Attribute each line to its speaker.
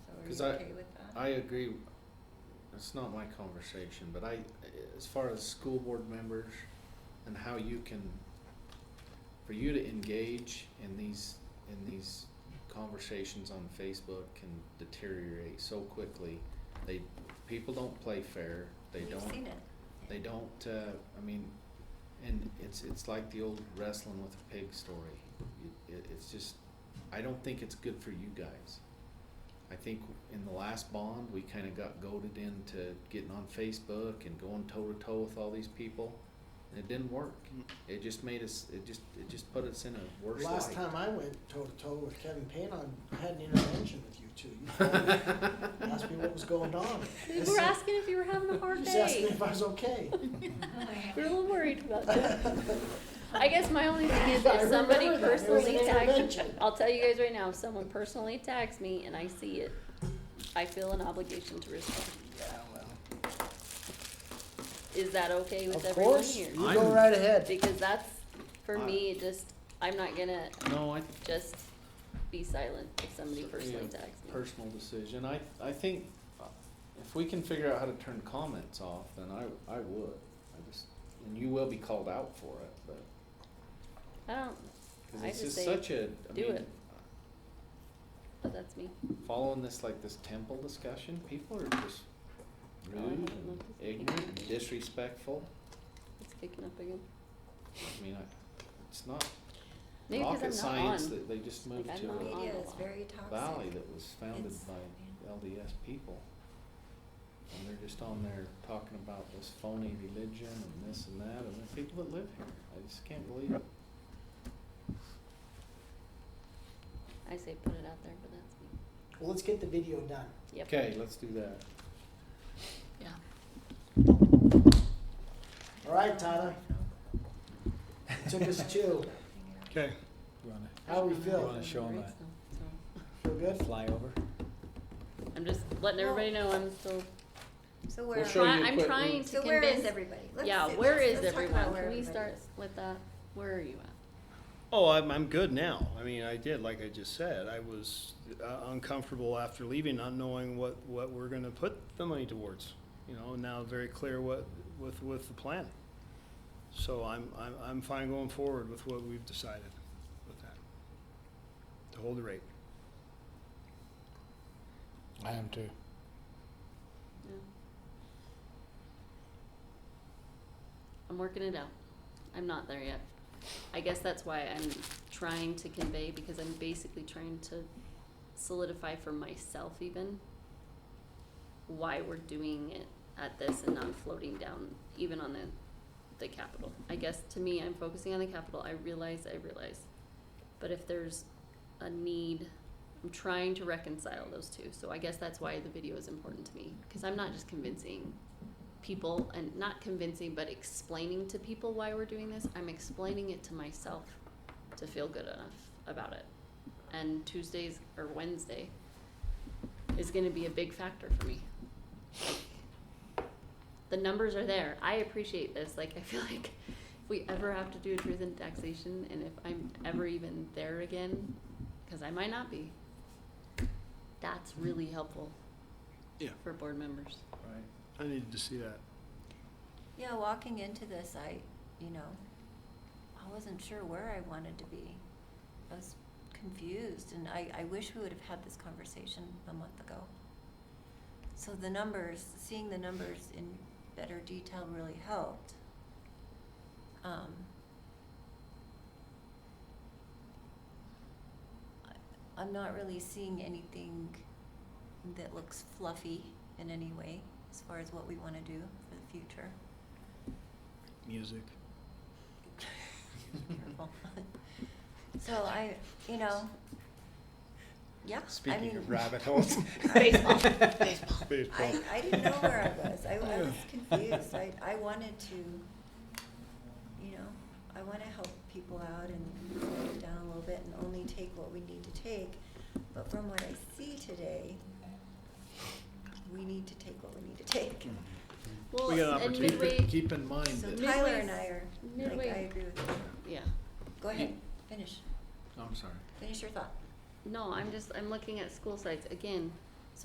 Speaker 1: you
Speaker 2: 'Cause I-
Speaker 1: okay with that?
Speaker 2: I agree. It's not my conversation, but I, as far as school board members and how you can, for you to engage in these, in these conversations on Facebook can deteriorate so quickly. They, people don't play fair. They
Speaker 1: We've
Speaker 2: don't.
Speaker 1: seen it.
Speaker 2: They don't. Uh, I mean, and it's it's like the old wrestling with a pig story. It, it, it's just, I don't think it's good for you guys. I think in the last bond, we kind of got goaded into getting on Facebook and going toe to toe with all these people. And it didn't work. It just made us. It just it just put us in a worse
Speaker 3: Last
Speaker 2: light.
Speaker 3: time I went toe to toe with Kevin Payne, I had an intervention with you two. You called me, asked me what was going on.
Speaker 4: We were asking if you were having a hard
Speaker 3: Just asked me
Speaker 4: day.
Speaker 3: if I was okay.
Speaker 4: We were a little worried about that. I guess my only thing is
Speaker 3: I
Speaker 4: if somebody
Speaker 3: remember that. It was an
Speaker 4: personally tags,
Speaker 3: intervention.
Speaker 4: I'll tell you guys right now, if someone personally tags me and I see it, I feel an obligation to respond.
Speaker 3: Yeah, well,
Speaker 4: Is that okay with
Speaker 3: Of
Speaker 4: everyone
Speaker 3: course,
Speaker 4: here?
Speaker 3: you go
Speaker 2: I'm-
Speaker 3: right ahead.
Speaker 4: Because that's, for
Speaker 2: I-
Speaker 4: me, it just, I'm not gonna
Speaker 2: no, I
Speaker 4: just be silent if somebody
Speaker 2: So,
Speaker 4: personally
Speaker 2: yeah,
Speaker 4: tags me.
Speaker 2: Personal decision. I, I think uh, if we can figure out how to turn comments off, then I, I would. I just, and you will be called out for it, but,
Speaker 4: I don't,
Speaker 2: cause
Speaker 4: I
Speaker 2: it's
Speaker 4: just
Speaker 2: just
Speaker 4: say,
Speaker 2: such a, I
Speaker 4: do
Speaker 2: mean,
Speaker 4: it. but that's me.
Speaker 2: following this, like this temple discussion, people are just
Speaker 4: Oh, I
Speaker 2: rude
Speaker 4: haven't
Speaker 2: and
Speaker 4: looked at the
Speaker 2: ignorant and
Speaker 4: picture.
Speaker 2: disrespectful.
Speaker 4: It's kicking up again.
Speaker 2: I mean, I, it's not
Speaker 4: Maybe because
Speaker 2: rocket
Speaker 4: I'm not
Speaker 2: science
Speaker 4: on.
Speaker 2: that they just moved
Speaker 4: I'm
Speaker 2: to
Speaker 4: not
Speaker 2: a
Speaker 4: on.
Speaker 1: Media
Speaker 4: a
Speaker 1: is
Speaker 4: lot.
Speaker 1: very toxic.
Speaker 2: valley that was founded
Speaker 1: It's-
Speaker 2: by
Speaker 1: yeah.
Speaker 2: LDS people. And they're just on there talking about this phony religion and this and that, and the people that live here, I just can't believe it.
Speaker 4: I say put it out there, but that's me.
Speaker 3: Well, let's get the video done.
Speaker 4: Yep.
Speaker 2: Okay, let's do that.
Speaker 4: Yeah.
Speaker 3: All right, Tyler, took us two.
Speaker 5: Okay. You wanna
Speaker 3: How we feel?
Speaker 5: wanna show 'em
Speaker 4: Right, so- so.
Speaker 3: Feel good?
Speaker 5: fly over?
Speaker 4: I'm just
Speaker 1: Well-
Speaker 4: letting everybody know I'm still.
Speaker 1: So
Speaker 2: We'll
Speaker 1: where,
Speaker 2: show
Speaker 4: try-
Speaker 2: you
Speaker 4: I'm
Speaker 2: quick-
Speaker 4: trying to
Speaker 1: so where is
Speaker 4: convince.
Speaker 1: everybody? Let's
Speaker 4: Yeah,
Speaker 1: sit-
Speaker 4: where
Speaker 1: let's-
Speaker 4: is
Speaker 1: let's talk about
Speaker 4: everyone?
Speaker 1: where
Speaker 4: Can we
Speaker 1: everybody
Speaker 4: start
Speaker 1: is.
Speaker 4: with that? Where are you at?
Speaker 5: Oh, I'm, I'm good now. I mean, I did, like I just said, I was uh, uncomfortable after leaving, not knowing what, what we're gonna put the money towards. You know, now very clear what, with, with the plan. So I'm, I'm, I'm fine going forward with what we've decided with that. To hold the rate.
Speaker 6: I am too.
Speaker 4: Yeah. I'm working it out. I'm not there yet. I guess that's why I'm trying to convey because I'm basically trying to solidify for myself even why we're doing it at this and not floating down even on the the capital. I guess to me I'm focusing on the capital. I realize I realize. But if there's a need I'm trying to reconcile those two. So I guess that's why the video is important to me because I'm not just convincing people and not convincing but explaining to people why we're doing this. I'm explaining it to myself to feel good enough about it. And Tuesdays or Wednesday is going to be a big factor for me. The numbers are there. I appreciate this. Like I feel like if we ever have to do a truth and taxation and if I'm ever even there again because I might not be. That's really helpful.
Speaker 5: Yeah.
Speaker 4: For board members.
Speaker 2: Right.
Speaker 5: I needed to see that.
Speaker 1: Yeah, walking into this, I, you know, I wasn't sure where I wanted to be. I was confused, and I, I wish we would have had this conversation a month ago. So the numbers, seeing the numbers in better detail really helped. Um, I- I'm not really seeing anything that looks fluffy in any way as far as what we want to do for the future.
Speaker 5: Music.
Speaker 1: Careful. So I, you know, yeah, I
Speaker 6: Speaking
Speaker 1: mean,
Speaker 6: of rabbit holes,
Speaker 4: Baseball.
Speaker 1: I, I didn't know where I was. I I was confused. I, I wanted to, you know, I want to help people out and slow it down a little bit and only take what we need to take. But from what I see today, we need to take what we need to take.
Speaker 6: Hmm.
Speaker 4: Well,
Speaker 5: We got an
Speaker 4: and
Speaker 5: opportunity.
Speaker 4: midway,
Speaker 2: Keep in mind
Speaker 1: So
Speaker 2: that,
Speaker 4: Midway-
Speaker 1: Tyler and I are, like, I
Speaker 4: midway-
Speaker 1: agree with you.
Speaker 4: yeah.
Speaker 1: Go ahead, finish,
Speaker 2: I'm sorry.
Speaker 1: finish your thought.
Speaker 4: No, I'm just, I'm looking at school sites. Again,